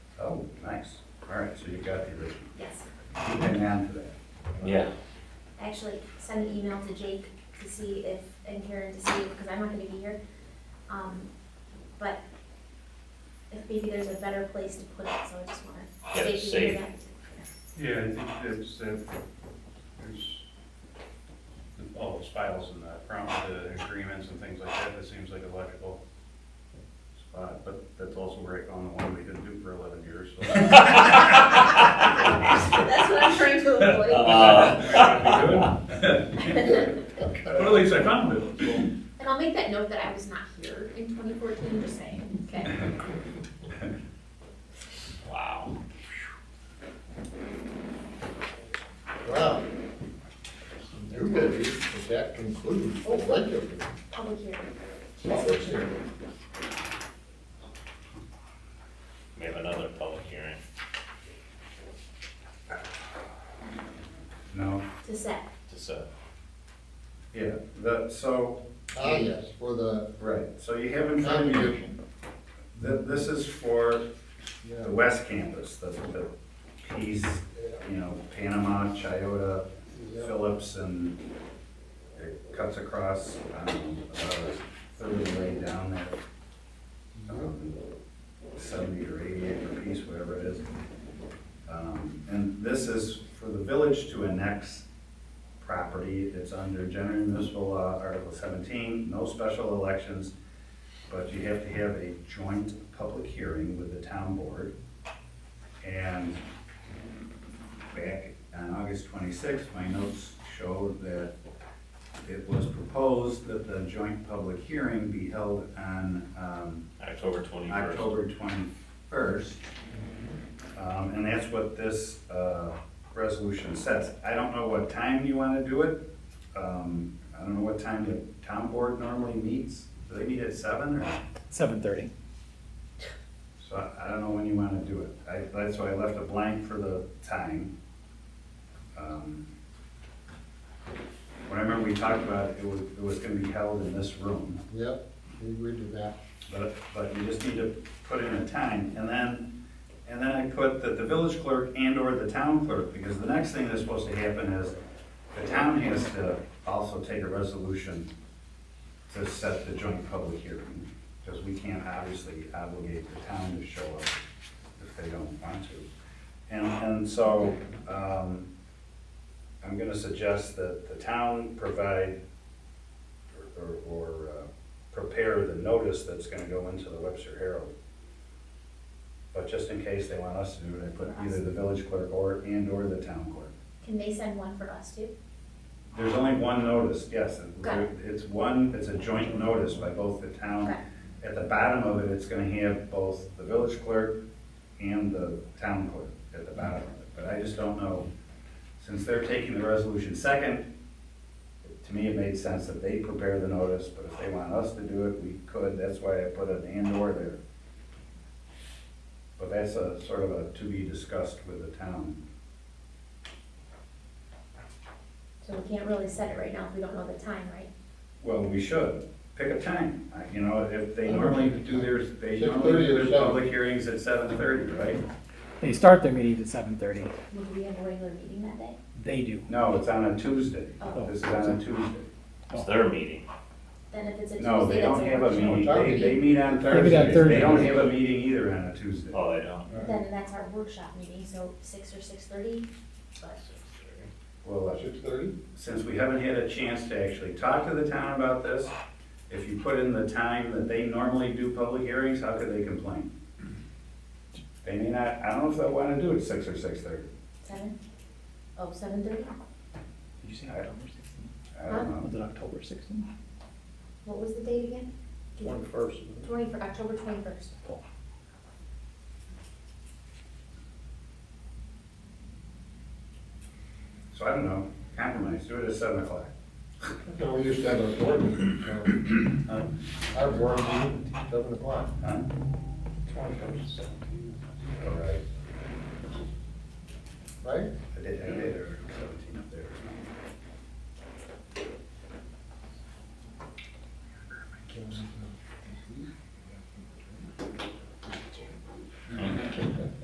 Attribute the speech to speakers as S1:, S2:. S1: Oh, got you this.
S2: Yes,
S3: keep an eye on for that.
S4: Yeah,
S2: actually, send an email to Jake to see if, and Karen to see, because I'm not gonna be here. Um, but if maybe there's a better place to put it, so I just wanna.
S4: Yeah,
S2: Jake, you
S4: safe.
S2: do that.
S1: Yeah, I think that's, uh, there's the- all those files and the prom, the agreements and things like that, that seems like a logical spot, but that's also right on the one we didn't do for eleven years, so.
S5: That's what I'm trying to avoid.
S4: Uh,
S1: But at least I found it, so.
S2: And I'll make that note that I was not here in twenty fourteen, just saying, okay?
S4: Wow.
S6: Wow. New business, but that concludes the budget.
S2: Public hearing.
S6: Public hearing.
S4: We have another public hearing.
S3: No,
S2: To set.
S4: Just a,
S1: Yeah, that, so,
S6: Ah, yes, for the
S1: right, so you have in front of you,
S6: contribution.
S1: th- this is for
S6: Yeah.
S1: the west campus, the, the piece, you know, Panama, Chiota, Phillips, and it cuts across, um, about a third of the way down there. um, Seventy or eighty acre piece, whatever it is. Um, and this is for the village to annex property. It's under general municipal law, Article seventeen, no special elections. But you have to have a joint public hearing with the town board. And back on August twenty-sixth, my notes showed that it was proposed that the joint public hearing be held on, um,
S4: October twenty-first.
S1: October twenty-first. Um, and that's what this, uh, resolution says. I don't know what time you wanna do it. Um, I don't know what time the town board normally meets. Do they meet at seven or?
S7: Seven thirty.
S1: So I, I don't know when you wanna do it. I, that's why I left a blank for the time. Um, When I remember we talked about it, it was, it was gonna be held in this room.
S6: Yep, we agreed to that.
S1: But, but you just need to put in a time, and then, and then I put that the village clerk and or the town clerk, because the next thing that's supposed to happen is the town has to also take a resolution to set the joint public hearing, because we can't obviously obligate the town to show up if they don't want to. And, and so, um, I'm gonna suggest that the town provide or, or- or, uh, prepare the notice that's gonna go into the Webster Herald. But just in case they want us to do it, I put either the village clerk or, and/or the town clerk.
S2: Can they send one for us too?
S1: There's only one notice, yes, and
S2: Got it.
S1: it's one, it's a joint notice by both the town.
S2: Okay.
S1: At the bottom of it, it's gonna have both the village clerk and the town clerk at the bottom of it. But I just don't know, since they're taking the resolution second, to me, it made sense that they prepare the notice, but if they want us to do it, we could, that's why I put an and/or there. But that's a sort of a to be discussed with the town.
S2: So we can't really set it right now if we don't know the time, right?
S1: Well, we should, pick a time, I- you know, if they normally do their, they normally
S6: 6:30
S1: do
S6: or
S1: their public hearings at seven thirty, right?
S7: They start their meetings at seven thirty.
S2: Will we have a regular meeting that day?
S7: They do.
S1: No, it's on a Tuesday,
S2: Oh.
S1: this is on a Tuesday.
S4: It's their meeting.
S2: Then if it's a Tuesday,
S1: No, they don't
S2: that's
S1: have a meeting, they, they meet on
S7: They meet on
S1: Thursdays, they don't
S7: Thursdays.
S1: have a meeting either on a Tuesday.
S4: Oh, they don't.
S2: Then that's our workshop meeting, so six or six thirty, but
S1: Well, uh,
S6: Six thirty?
S1: since we haven't had a chance to actually talk to the town about this, if you put in the time that they normally do public hearings, how could they complain? They may not, I don't know if they wanna do it six or six thirty,
S2: seven? Oh, seven thirty?
S7: Did you say
S1: October
S7: sixteenth?
S1: I don't
S7: Was
S1: know.
S7: it October sixteenth?
S2: What was the date again?
S6: Twenty-first.
S2: Twenty, for October twenty-first.
S1: So I don't know, compromise, do it at seven o'clock.
S6: No, we used to have a board meeting, so
S1: Huh?
S6: our board meeting, seven o'clock.
S1: Huh?
S6: Twenty-first.
S1: All right.
S6: Right?
S1: I did, I did,